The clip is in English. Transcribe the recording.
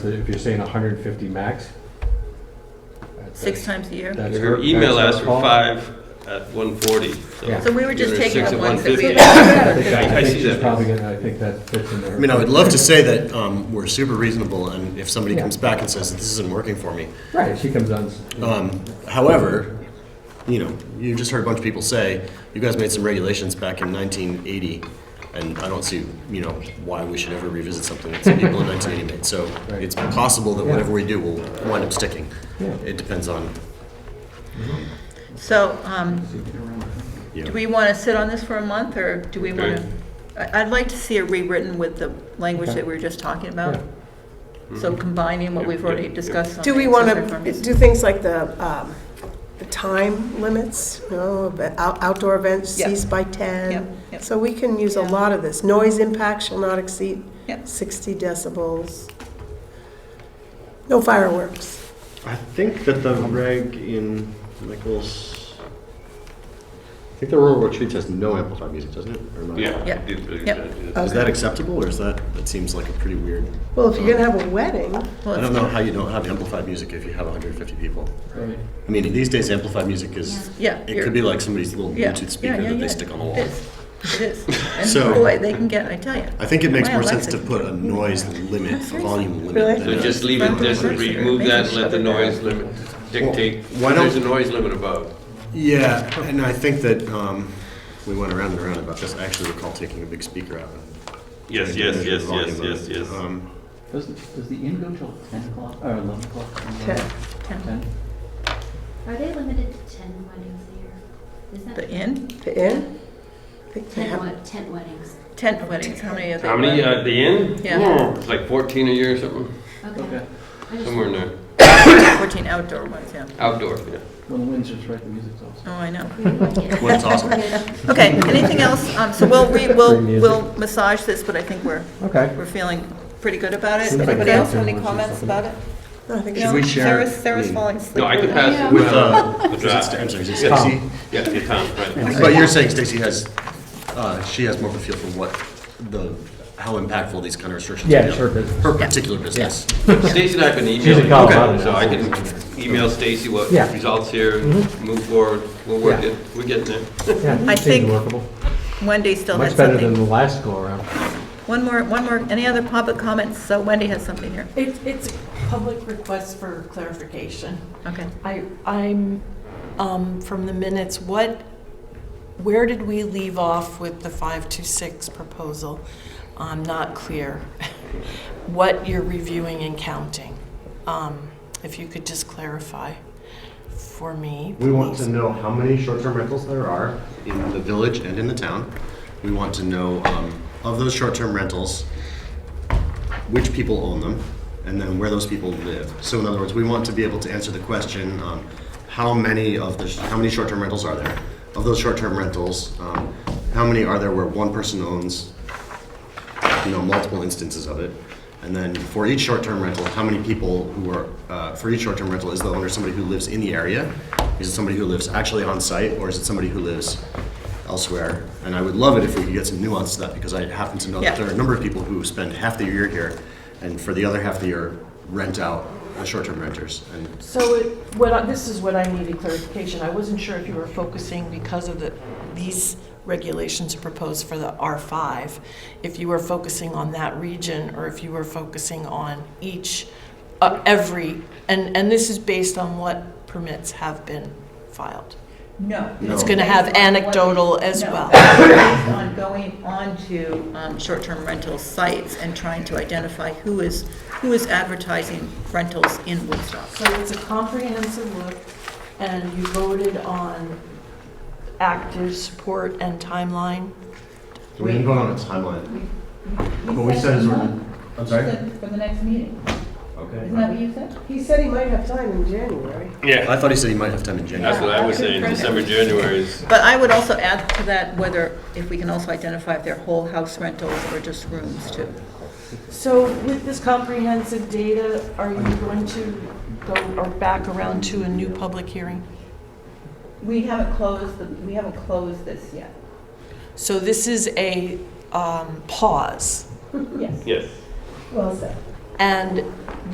If you're saying hundred and fifty max? that's- six times a year. that's Her her- email that's asked her for call. five at one forty, Yeah. so. So we were just You're taking six the at ones that we 150. I had. think- I I think see she's that. probably gonna, I think that fits in there. I mean, I would love to say that um, we're super reasonable, and if somebody comes back and says that this isn't working for me, Right, she comes on. um, however, you know, you just heard a bunch of people say you guys made some regulations back in 1980, and I don't see you know why we should ever revisit something that some people in 1980 made. So Right. it's possible that Yeah. whatever we do will wind up sticking. Yeah. It depends on So, um, you. do Know, we want to sit on this for a month, or do we want to? I'd like to see it rewritten with the language Okay. that we were just talking Yeah. about. So combining what we've already Yeah, yeah. discussed on. Do we these want other to forms. do things like the, um, the time limits, you know, the out- outdoor events Yep. cease by Yep, 10? yep. So we can use a Yeah. lot of this. Noise impact shall not exceed Yep. 60 decibels. No fireworks. I think that the reg in Michael's, I think the rural retreats has no amplified music, doesn't it? Or am I- Yeah. Yep. Did- did- Yep. did- Uh, Is that acceptable, or is that that seems like a pretty weird? Well, if you're going to have a wedding, Well, I it's- don't know how you don't have amplified music if you have 150 people. Right. I mean, these days amplified music is Yeah. It you're- could be like somebody's little yeah, Bluetooth yeah, speaker yeah, that yeah. they stick on the wall. It is, it is. And So- boy, they can get, I tell you. I think it makes My more sense to Alexa- put a noise limit, a volume Really? limit. So than a- just leave it, just remove that, and let the noise limit dictate, Why don't- there's a noise limit above. Yeah, and I think that um, we went around and around about this. I actually recall taking a big speaker out. and Yes, trying to yes, measure yes, the yes, volume yes, of it. yes. Um, Does, does the inn go till ten o'clock, or eleven o'clock? Ten. Ten. Ten? Are they limited to ten weddings a year? Is that? The inn, the inn, I think they Ten have- wed- ten weddings. tent weddings, how many of they? How many, were? uh, the inn? Yeah. Oh, It's like fourteen a year or something, Okay. Okay, I just- somewhere in there, Fourteen outdoor ones, yeah. outdoor, yeah. when the wind's just right, the music's off. Oh, I know. Well, it's awesome. Okay, anything else? Um, so we'll, re- we'll, Free music. we'll massage this, but I think we're, Okay. we're feeling pretty good about it. Seems like Anybody a else have any bathroom or comments something. about it? no, I think No? it's- we share- Sarah's, Sarah's I mean- falling asleep. No, I could right now. pass it. With, uh, is it draft. Sta- I'm sorry, is it Yeah. Stacy? Yeah, yeah, Tom, right. But you're saying Stacy has, uh, she has more of a feel for what the, how impactful these kind of restrictions are. Yeah, it's her business. Her particular business. Stacy and I have been She's in emailing, Colorado now. so I can email Stacy what Yeah. results here, move forward, we'll work Yeah. it, we're getting there. Yeah, I seems think- workable. Wendy still had Much better than the something. last go around. One more, one more, any other public comments? So Wendy has something here. It's, it's a public request for clarification. Okay. I, I'm, um, from the minutes, what, where did we leave off with the 526 proposal? I'm not clear what you're reviewing and counting. Um, If you could just clarify for me. We want please. to know how many short-term rentals there are in the village and in the town. We want to know, um, of those short-term rentals, which people own them, and then where those people live. So in other words, we want to be able to answer the question, um, how many of the, how many short-term rentals are there? Of those short-term rentals, um, how many are there where one person owns, you know, multiple instances of it? And then for each short-term rental, how many people who are, uh, for each short-term rental, is the owner somebody who lives in the area? Is it somebody who lives actually on site, or is it somebody who lives elsewhere? And I would love it if we could get some nuance to that, because I happen to know Yeah. that there are a number of people who spend half the year here and for the other half of the year rent out the short-term renters and So it, what, I- this is what I needed clarification. I wasn't sure if you were focusing because of the, these regulations proposed for the R5, if you were focusing on that region or if you were focusing on each, uh, every, and, and this is based on what permits have been filed. No. It's going to have anecdotal as No. well. Based On going on to um, short-term rental sites and trying to identify who is, who is advertising rentals in Woodstock. So it's a comprehensive look, and you voted on active support and timeline. we didn't go on a timeline. What we said is we're, I'm sorry? For the next meeting. Okay. that what you said? He said he might have time in January. Yeah. I thought he said he might have time in January. That's what I was saying, December, January is, But I would also add to that whether, if we can also identify if they're whole house rentals or just rooms too. So with this comprehensive data, are you going to go or back around to a new public hearing? We haven't closed, the we haven't closed this yet. So this is a um, pause, Yes. yes. Well said. and